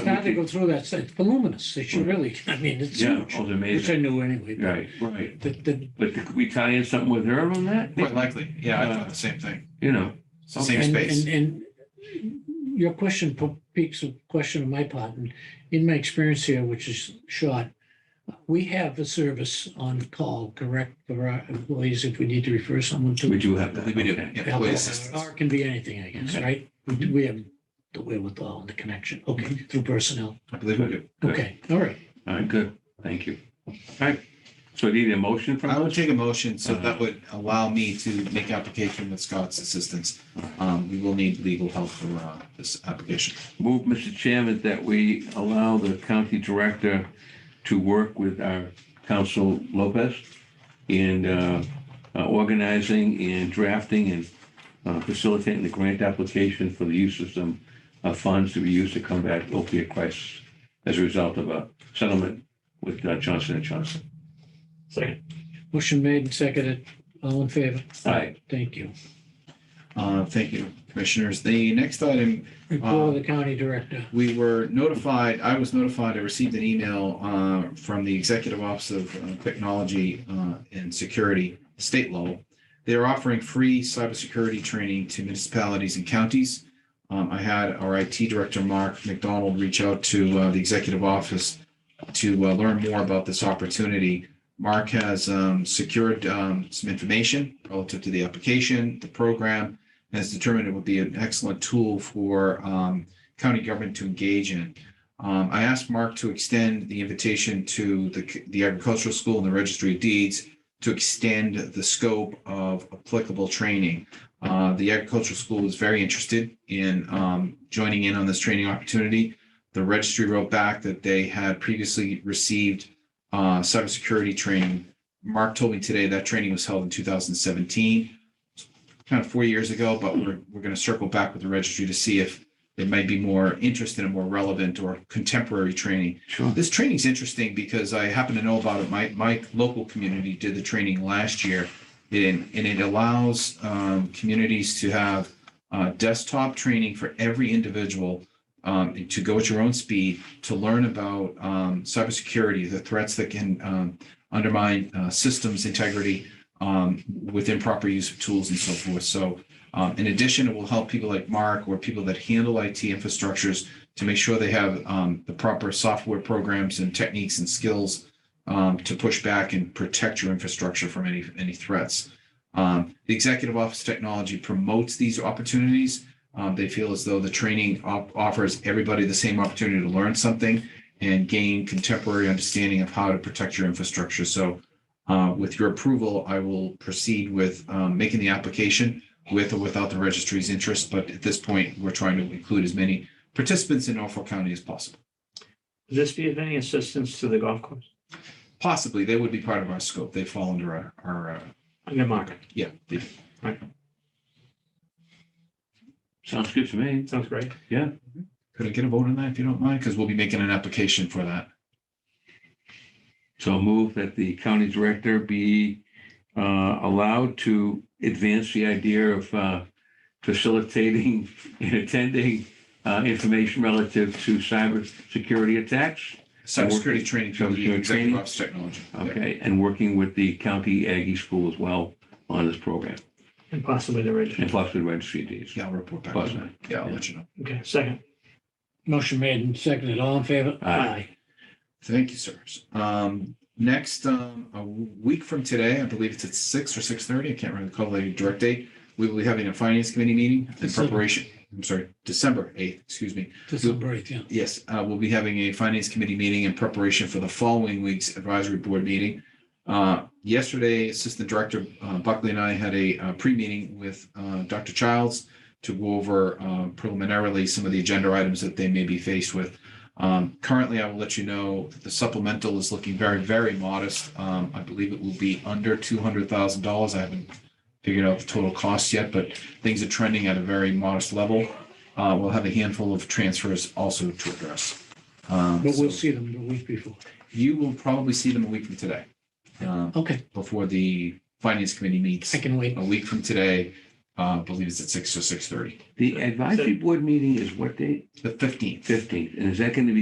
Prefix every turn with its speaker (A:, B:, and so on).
A: have to go through that, it's- it's voluminous, it should really, I mean, it's
B: Yeah,
A: huge,
B: oh, they're
A: which I
B: amazing.
A: knew anyway. but
B: Right, right.
A: The, the,
B: But could we tie in something with her on that?
C: Quite likely. Yeah, I thought the same thing.
B: You know,
C: It's the same
A: and,
C: space.
A: and, and your question po- piques a question on my part, and in my experience here, which is short, we have a service on call, correct, for our employees if we need to refer someone to.
B: we do have
C: I
B: that.
C: think we do.
B: okay.
C: Yeah,
A: Or
C: employee assistance.
A: it can be anything, I guess,
B: Okay.
A: right?
B: Mm-hmm.
A: We have the wherewithal and the connection, okay, through personnel,
C: I believe we do.
B: Good.
A: okay, all right.
B: All right, good. Thank you. All right. So do you need a motion from Uh-huh.
C: I would
B: us?
C: take a motion, so that would allow me to make application with Scott's assistance.
B: Uh-huh.
C: Um, we will need legal help for, uh, this application.
B: Move, Mr. Chairman, that we allow the county director to work with our council Lopez in uh, uh, organizing and drafting and uh, facilitating the grant application for the use of some uh, funds to be used to combat opiate crisis as a result of a settlement with uh, Johnson and Johnson.
A: Motion made and seconded. All in favor?
B: All right.
A: Thank you.
C: Uh, thank you, commissioners. The next item
A: Report of the county director.
C: we were notified, I was notified, I received an email uh, from the Executive Office of uh, Technology uh, and Security, state level. They're offering free cybersecurity training to municipalities and counties. Um, I had our IT director, Mark McDonald, reach out to uh, the Executive Office to uh, learn more about this opportunity. Mark has um, secured um, some information relative to the application, the program, and has determined it would be an excellent tool for um, county government to engage in. Um, I asked Mark to extend the invitation to the, the agricultural school and the registry of deeds to extend the scope of applicable training. Uh, the agricultural school was very interested in, um, joining in on this training opportunity. The registry wrote back that they had previously received, uh, cybersecurity training. Mark told me today that training was held in two thousand seventeen, kind of four years ago, but we're, we're gonna circle back with the registry to see if it might be more interested and more relevant or contemporary training.
B: Sure.
C: This training's interesting because I happen to know about it. My, my local community did the training last year. And, and it allows um, communities to have uh, desktop training for every individual um, to go at your own speed, to learn about um, cybersecurity, the threats that can um, undermine uh, systems integrity um, with improper use of tools and so forth. So um, in addition, it will help people like Mark or people that handle IT infrastructures to make sure they have um, the proper software programs and techniques and skills um, to push back and protect your infrastructure from any any threats. Um, the Executive Office of Technology promotes these opportunities. Um, they feel as though the training op- offers everybody the same opportunity to learn something and gain contemporary understanding of how to protect your infrastructure. So, uh, with your approval, I will proceed with um, making the application with or without the registry's interest, but at this point, we're trying to include as many participants in Norfolk County as possible.
D: Would this be of any assistance to the golf course?
C: Possibly, they would be part of our scope. They fall under our, our, uh,
D: Under market,
C: yeah. they-
B: Sounds good to me.
D: sounds great.
C: Could I get a vote on that if you don't mind? Because we'll be making an application for that.
B: So move that the county director be uh, allowed to advance the idea of uh, facilitating and attending uh, information relative to cybersecurity attacks.
C: Cybersecurity training through the
B: Cybersecurity training?
C: Executive Office of Technology. Yeah.
B: Okay, and working with the county Aggie School as well on this program
D: And possibly the
B: and
D: registry.
B: possibly registry deeds.
C: Yeah, I'll report back.
B: Plus,
C: on that. Yeah, I'll let you know.
D: Okay, second.
A: Motion made and seconded. All in favor?
B: Aye.
C: Thank you, sirs. Um, next, um, a week from today, I believe it's at six or six thirty, I can't recall the direct date. We will be having a finance committee meeting in
A: December.
C: preparation, I'm sorry, December eighth, excuse me.
A: December eighth, yeah.
C: Yes, uh, we'll be having a finance committee meeting in preparation for the following week's advisory board meeting. Uh, yesterday, Assistant Director uh, Buckley and I had a, uh pre-meeting with, uh, Dr. Childs to go over, uh, preliminarily some of the agenda items that they may be faced with. Um, currently, I will let you know that the supplemental is looking very, very modest. Um, I believe it will be under two hundred thousand dollars. I haven't figured out the total cost yet, but things are trending at a very modest level. Uh, we'll have a handful of transfers also to address. Um,
A: But we'll
C: so
A: see them the week before.
C: You will probably see them a week from today, um,
A: Okay,
C: before the finance committee meets
A: I can wait.
C: a week from today. Uh, I believe it's at six or six thirty,
B: The advisory board meeting is what date?
C: the fifteenth.
B: Fifteenth. And is that going to be